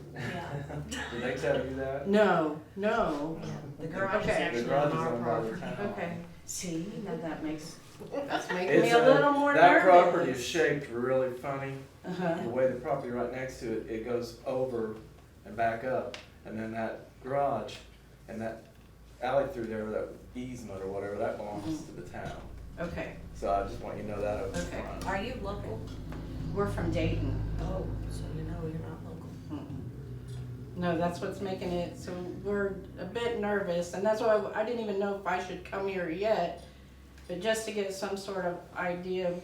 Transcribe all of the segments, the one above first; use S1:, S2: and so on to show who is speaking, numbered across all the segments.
S1: Did they tell you that?
S2: No, no.
S3: The garage is
S2: Okay.
S1: The
S3: actually
S1: garage
S3: on
S1: is
S3: our
S1: owned by
S3: property.
S1: the town.
S2: Okay. See, now that makes, that's making me
S1: It's,
S2: a
S1: uh,
S2: little more
S1: That
S2: nervous.
S1: property is shaped really funny.
S2: Uh-huh.
S1: The way the property right next to it, it goes over and back up. And then that garage and that alley through there, that easement or whatever, that belongs to the town.
S2: Okay,
S1: So I just want you to know that up
S2: Okay.
S1: front.
S3: Are you local?
S2: we're from Dayton.
S3: Oh, so you know you're not local.
S2: Mm-mm. No, that's what's making it, so we're a bit nervous, and that's why I didn't even know if I should come here yet. But just to get some sort of idea, of,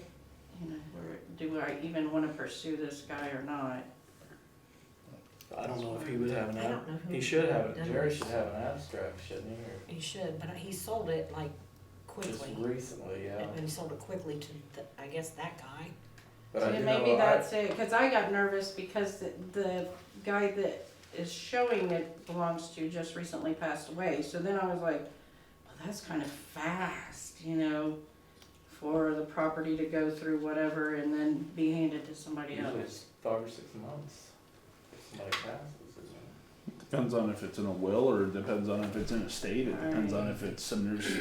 S2: you know, where, do I even wanna pursue this guy or not?
S1: I don't know if he would have an,
S3: I
S1: ab-
S3: don't know who.
S1: he should have,
S3: done
S1: Jerry
S3: this.
S1: should have an abstract, shouldn't he?
S3: He should, but he sold it like
S1: Or just
S3: quickly.
S1: recently, yeah.
S3: And he sold it quickly to, the- I guess, that guy.
S1: But I
S2: Yeah,
S1: do
S2: maybe
S1: know, I,
S2: that's it, cause I got nervous because the, the guy that is showing it belongs to just recently passed away, so then I was like, well, that's kind of fast, you know, for the property to go through whatever and then be handed to somebody
S1: usually
S2: else.
S1: it's five or six months, if somebody passes, isn't it?
S4: Depends on if it's in a will or it depends on if it's in a state. It depends on if it's and there's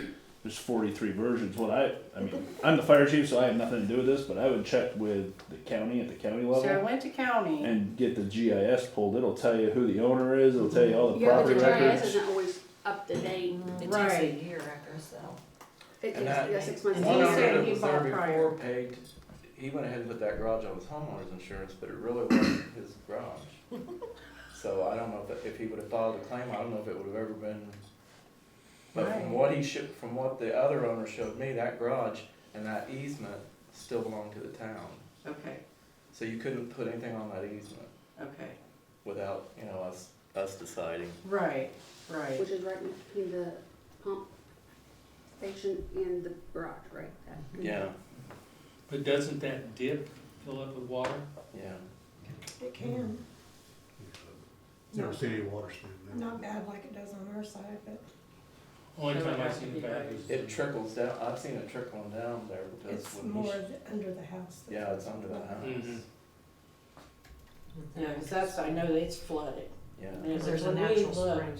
S4: there's 43 versions. What I I mean, I'm the fire chief, so I have nothing to do with this, but I would check with the county at the county level.
S2: So I went to county,
S4: and get the GIS pulled. It'll tell you who the owner is. It'll tell you all the
S5: Yeah, but
S4: property
S5: the GIS
S4: records.
S5: isn't always up to date.
S3: It takes a
S2: Right.
S3: year after a sale.
S5: It takes,
S1: And that-
S5: yeah, six months.
S2: And
S5: to
S1: One
S2: he
S5: get
S1: owner
S2: said
S1: that
S2: he
S1: was there
S2: bought prior.
S1: before paid, he went ahead and put that garage on his homeowner's insurance, but it really wasn't his garage. So I don't know if, if he would have filed a claim, I don't know if it would have ever been. But
S2: Right.
S1: from what he should, from what the other owner showed me, that garage and that easement still belonged to the town.
S2: okay,
S1: So you couldn't put anything on that easement
S2: okay,
S1: without, you know, us, us deciding.
S2: right, right,
S5: Which is right between the pump station and the garage, right? That-
S1: Yeah,
S6: But doesn't that dip fill up with water?
S1: yeah.
S7: It can,
S8: Never seen any water standing there.
S7: not bad like it does on our side, but
S6: Only
S2: So it
S6: time I've
S2: has to
S6: seen
S2: be
S6: it back is.
S1: It trickles down, I've seen it trickling down there because
S7: it's
S1: when he,
S7: more
S1: sh-
S7: the- under the house. that-
S1: yeah, it's under the house,
S6: Mhm.
S2: yeah, cause that's, I know it's flooded,
S1: yeah.
S2: Yeah,
S3: Because there's a
S2: when we
S3: natural spring.
S2: looked-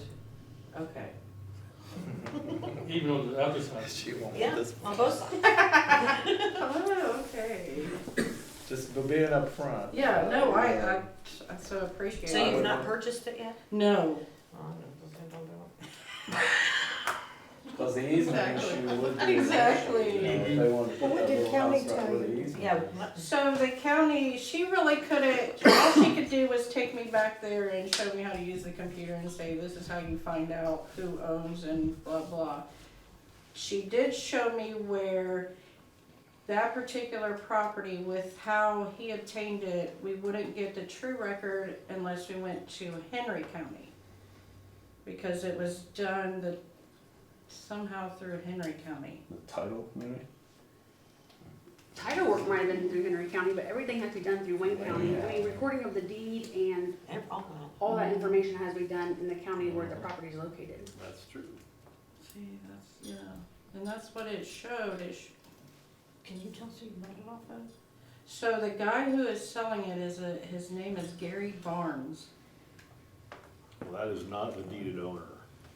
S2: okay.
S6: Even on the other side.
S1: She won't
S3: Yeah,
S1: this
S3: on both sides.
S2: Oh, okay.
S1: Just for being up front.
S2: Yeah, no, I, I, I so appreciate
S3: So
S1: I
S2: it.
S3: you've
S1: would
S3: not
S1: want-
S3: purchased it yet?
S2: No,
S3: Oh, I don't- don't do it.
S1: Because the easement
S2: Exactly.
S1: issue would be.
S2: Exactly.
S1: You know, if they wanted to
S7: Well,
S1: put
S7: what
S1: that
S7: did
S1: little
S7: county
S1: house right
S7: tell
S1: where the
S7: you?
S1: easement
S3: Yeah,
S1: is.
S3: what-
S2: so the county, she really couldn't, all she could do was take me back there and show me how to use the computer and say, this is how you find out who owns and blah, blah. She did show me where that particular property with how he obtained it, we wouldn't get the true record unless we went to Henry County. Because it was done the, somehow through Henry County.
S4: The title, maybe.
S5: Title work might have been through Henry County, but everything has to be done through Wayne County. I mean, recording of the deed and
S3: they're all out.
S5: all that information has to be done in the county where the property is located.
S1: That's true.
S2: See, that's, yeah, and that's what it showed, it sh-
S3: Can you tell us who you bought it off of?
S2: so the guy who is selling it is a, his name is Gary Barnes.
S9: Well, that is not the deeded owner.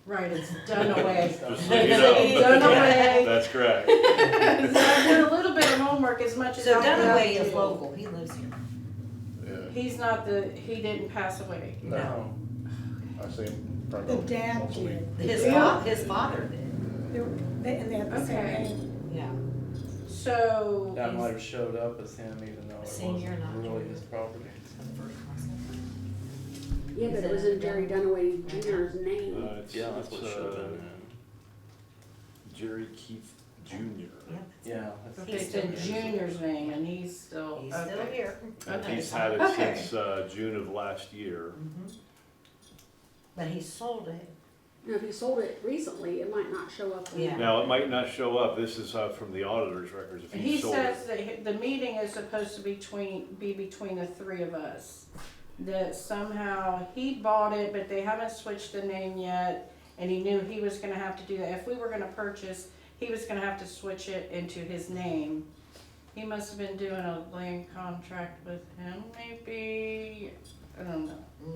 S2: Right, it's Dunaway.
S9: Just so you know,
S2: Dunaway,
S9: that's correct.
S2: so I did a little bit of homework as much as I
S3: So
S2: was
S3: Dunaway
S2: able
S3: is
S2: to.
S3: local, he lives here.
S9: Yeah,
S2: He's not the, he didn't pass away,
S1: No.
S9: I see him
S7: The
S9: probably
S7: dad
S9: once a week.
S7: did,
S3: His fa- his father did,
S7: They were- they- and they had the same
S2: Okay.
S7: name.
S3: yeah.
S2: so.
S1: That might have showed up as him even though it
S3: Senior
S1: wasn't
S3: not
S1: really
S3: joining.
S1: his property.
S3: That's the first concept.
S5: Yeah, but it was in Jerry Dunaway Junior's name.
S9: Uh, it's- it's, uh, Jerry Keith Jr.
S3: Yep.
S1: Yeah. that's-
S2: He
S3: He's
S2: said
S3: still
S2: Junior's name and he's still,
S3: He's still
S2: okay,
S3: here.
S9: And
S2: Okay.
S9: he's had it
S2: Okay.
S9: since, uh, June of last year.
S3: Mhm. But he sold it.
S5: Now, if you sold it recently, it might not show up. on-
S3: Yeah.
S9: Now, it might not show up, this is, uh, from the auditor's records, if
S2: he
S9: he sold it.
S2: says that he- the meeting is supposed to be between, be between the three of us. That somehow he bought it, but they haven't switched the name yet, and he knew he was gonna have to do that. If we were gonna purchase, he was gonna have to switch it into his name. He must have been doing a land contract with him, maybe, I don't know.